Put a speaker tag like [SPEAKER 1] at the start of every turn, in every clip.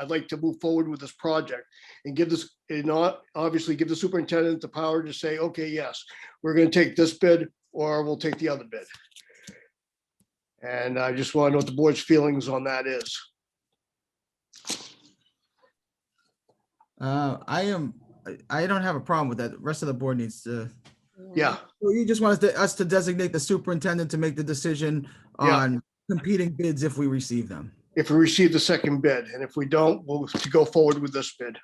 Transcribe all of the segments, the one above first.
[SPEAKER 1] I'd like to move forward with this project and give this, and not, obviously give the superintendent the power to say, okay, yes, we're gonna take this bid or we'll take the other bid. And I just want to know what the board's feelings on that is.
[SPEAKER 2] Uh, I am, I- I don't have a problem with that. The Rest of the board needs to,
[SPEAKER 1] Yeah,
[SPEAKER 2] Well, you just want us to, us to designate the superintendent to make the decision
[SPEAKER 1] Yeah.
[SPEAKER 2] on competing bids if we receive them.
[SPEAKER 1] if we receive the second bid, and if we don't, we'll have to go forward with this bid.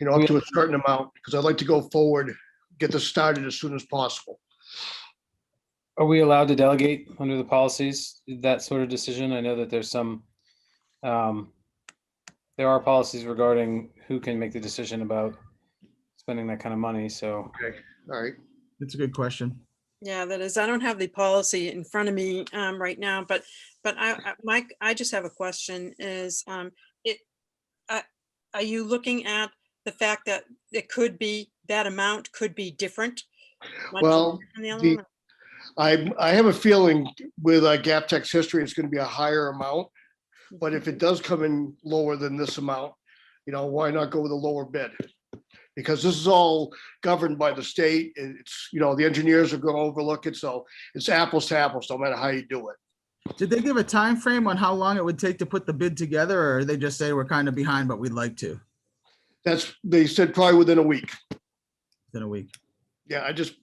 [SPEAKER 1] You know, up to a certain amount, because I'd like to go forward, get this started as soon as possible.
[SPEAKER 3] Are we allowed to delegate under the policies, that sort of decision? I know that there's some, um, there are policies regarding who can make the decision about spending that kind of money, so.
[SPEAKER 1] All right,
[SPEAKER 2] That's a good question.
[SPEAKER 4] Yeah, that is, I don't have the policy in front of me um, right now, but, but I, I- Mike, I just have a question is, um, it, uh, are you looking at the fact that it could be, that amount could be different? one to
[SPEAKER 1] Well,
[SPEAKER 4] from the other
[SPEAKER 1] the-
[SPEAKER 4] one?
[SPEAKER 1] I, I have a feeling with uh, Gap Tech's history, it's gonna be a higher amount. But if it does come in lower than this amount, you know, why not go with a lower bid? Because this is all governed by the state. and It's, you know, the engineers are gonna overlook it, so it's apples to apples, no matter how you do it.
[SPEAKER 2] Did they give a time frame on how long it would take to put the bid together or they just say we're kind of behind, but we'd like to
[SPEAKER 1] That's, they said probably within a week.
[SPEAKER 2] in a week?
[SPEAKER 1] Yeah, I just,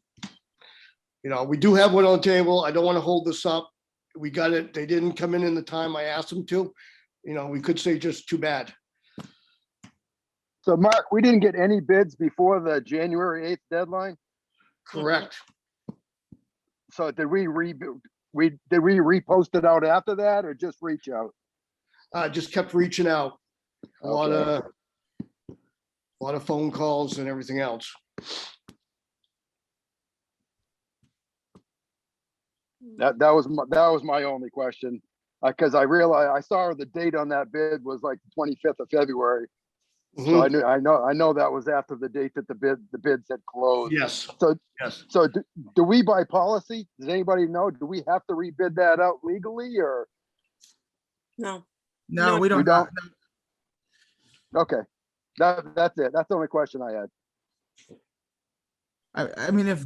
[SPEAKER 1] you know, we do have one on the table. I don't want to hold this up. We got it. They didn't come in in the time I asked them to. You know, we could say just too bad.
[SPEAKER 5] So Mark, we didn't get any bids before the January 8th deadline.
[SPEAKER 1] Correct.
[SPEAKER 5] So did we re, we, did we repost it out after that or just reach out?
[SPEAKER 1] I just kept reaching out. A lot
[SPEAKER 5] Okay.
[SPEAKER 1] of, a lot of phone calls and everything else.
[SPEAKER 5] That, that was, my- that was my only question. Uh, cause I realized, I saw the date on that bid was like the 25th of February. So
[SPEAKER 1] Mhm.
[SPEAKER 5] I knew, I know, I know that was after the date that the bid, the bids had closed.
[SPEAKER 1] Yes,
[SPEAKER 5] So,
[SPEAKER 1] yes.
[SPEAKER 5] so do, do we by policy, does anybody know, do we have to rebid that out legally or?
[SPEAKER 4] No,
[SPEAKER 2] No,
[SPEAKER 4] No,
[SPEAKER 2] we
[SPEAKER 5] We
[SPEAKER 2] don't.
[SPEAKER 5] don't. Okay, that, that's it. That's the only question I had.
[SPEAKER 2] I, I mean, if,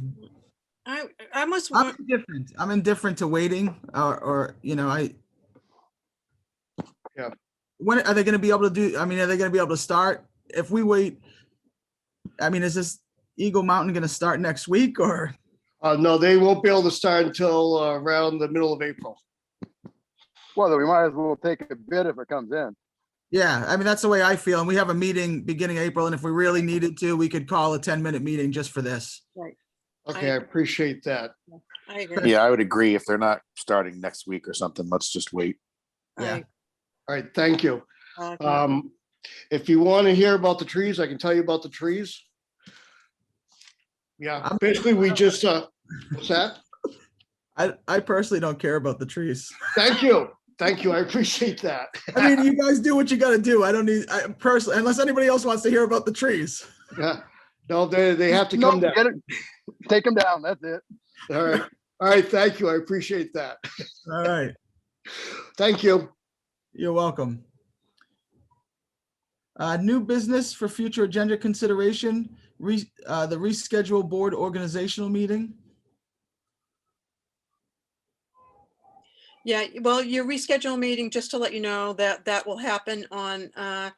[SPEAKER 4] I, I must
[SPEAKER 2] I'm
[SPEAKER 4] want,
[SPEAKER 2] indifferent, I'm indifferent to waiting or, or, you know, I.
[SPEAKER 1] Yeah.
[SPEAKER 2] When, are they gonna be able to do, I mean, are they gonna be able to start? If we wait, I mean, is this Eagle Mountain gonna start next week or?
[SPEAKER 1] Uh, no, they won't be able to start until uh, around the middle of April.
[SPEAKER 5] Well, then we might as well take a bid if it comes in.
[SPEAKER 2] Yeah, I mean, that's the way I feel. And we have a meeting beginning April, and if we really needed to, we could call a ten-minute meeting just for this.
[SPEAKER 1] Okay, I appreciate that.
[SPEAKER 4] I agree.
[SPEAKER 6] Yeah, I would agree. If they're not starting next week or something, let's just wait.
[SPEAKER 2] Yeah.
[SPEAKER 1] All right, thank you.
[SPEAKER 4] I- I-
[SPEAKER 1] Um, if you want to hear about the trees, I can tell you about the trees. Yeah,
[SPEAKER 2] I'm-
[SPEAKER 1] basically, we just, uh, what's that?
[SPEAKER 2] I, I personally don't care about the trees.
[SPEAKER 1] Thank you. Thank you. I appreciate that.
[SPEAKER 2] I mean, you guys do what you gotta do. I don't need, I personally, unless anybody else wants to hear about the trees.
[SPEAKER 1] Yeah. No, they, they have to
[SPEAKER 5] No,
[SPEAKER 1] come down.
[SPEAKER 5] get it. Take them down, that's it.
[SPEAKER 1] All right. All right, thank you. I appreciate that.
[SPEAKER 2] All right,
[SPEAKER 1] Thank you.
[SPEAKER 2] you're welcome. Uh, new business for future agenda consideration, re, uh, the reschedule board organizational meeting.
[SPEAKER 4] Yeah, well, your reschedule meeting, just to let you know that that will happen on uh,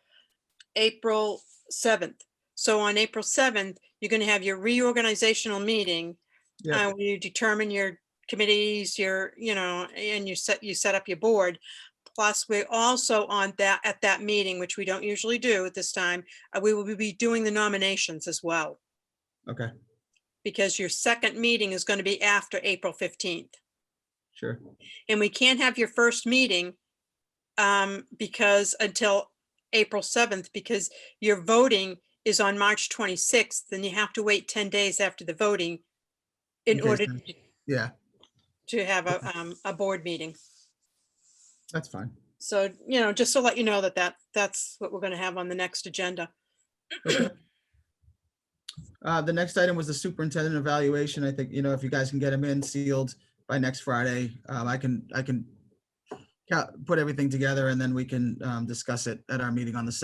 [SPEAKER 4] April 7th. So on April 7th, you're going to have your reorganizational meeting.
[SPEAKER 2] Yeah.
[SPEAKER 4] uh, where you determine your committees, your, you know, and you set, you set up your board. Plus, we're also on that, at that meeting, which we don't usually do at this time, uh, we will be doing the nominations as well,
[SPEAKER 2] Okay,
[SPEAKER 4] because your second meeting is going to be after April 15th.
[SPEAKER 2] sure.
[SPEAKER 4] And we can't have your first meeting um, because until April 7th, because your voting is on March 26th, then you have to wait 10 days after the voting in
[SPEAKER 2] Okay,
[SPEAKER 4] order
[SPEAKER 2] so- Yeah,
[SPEAKER 4] to have a, um, a board meeting.
[SPEAKER 2] that's fine.
[SPEAKER 4] So, you know, just to let you know that that, that's what we're gonna have on the next agenda.
[SPEAKER 2] Uh, the next item was the superintendent evaluation. I think, you know, if you guys can get them in sealed by next Friday, um, I can, I can ca- put everything together and then we can um, discuss it at our meeting on the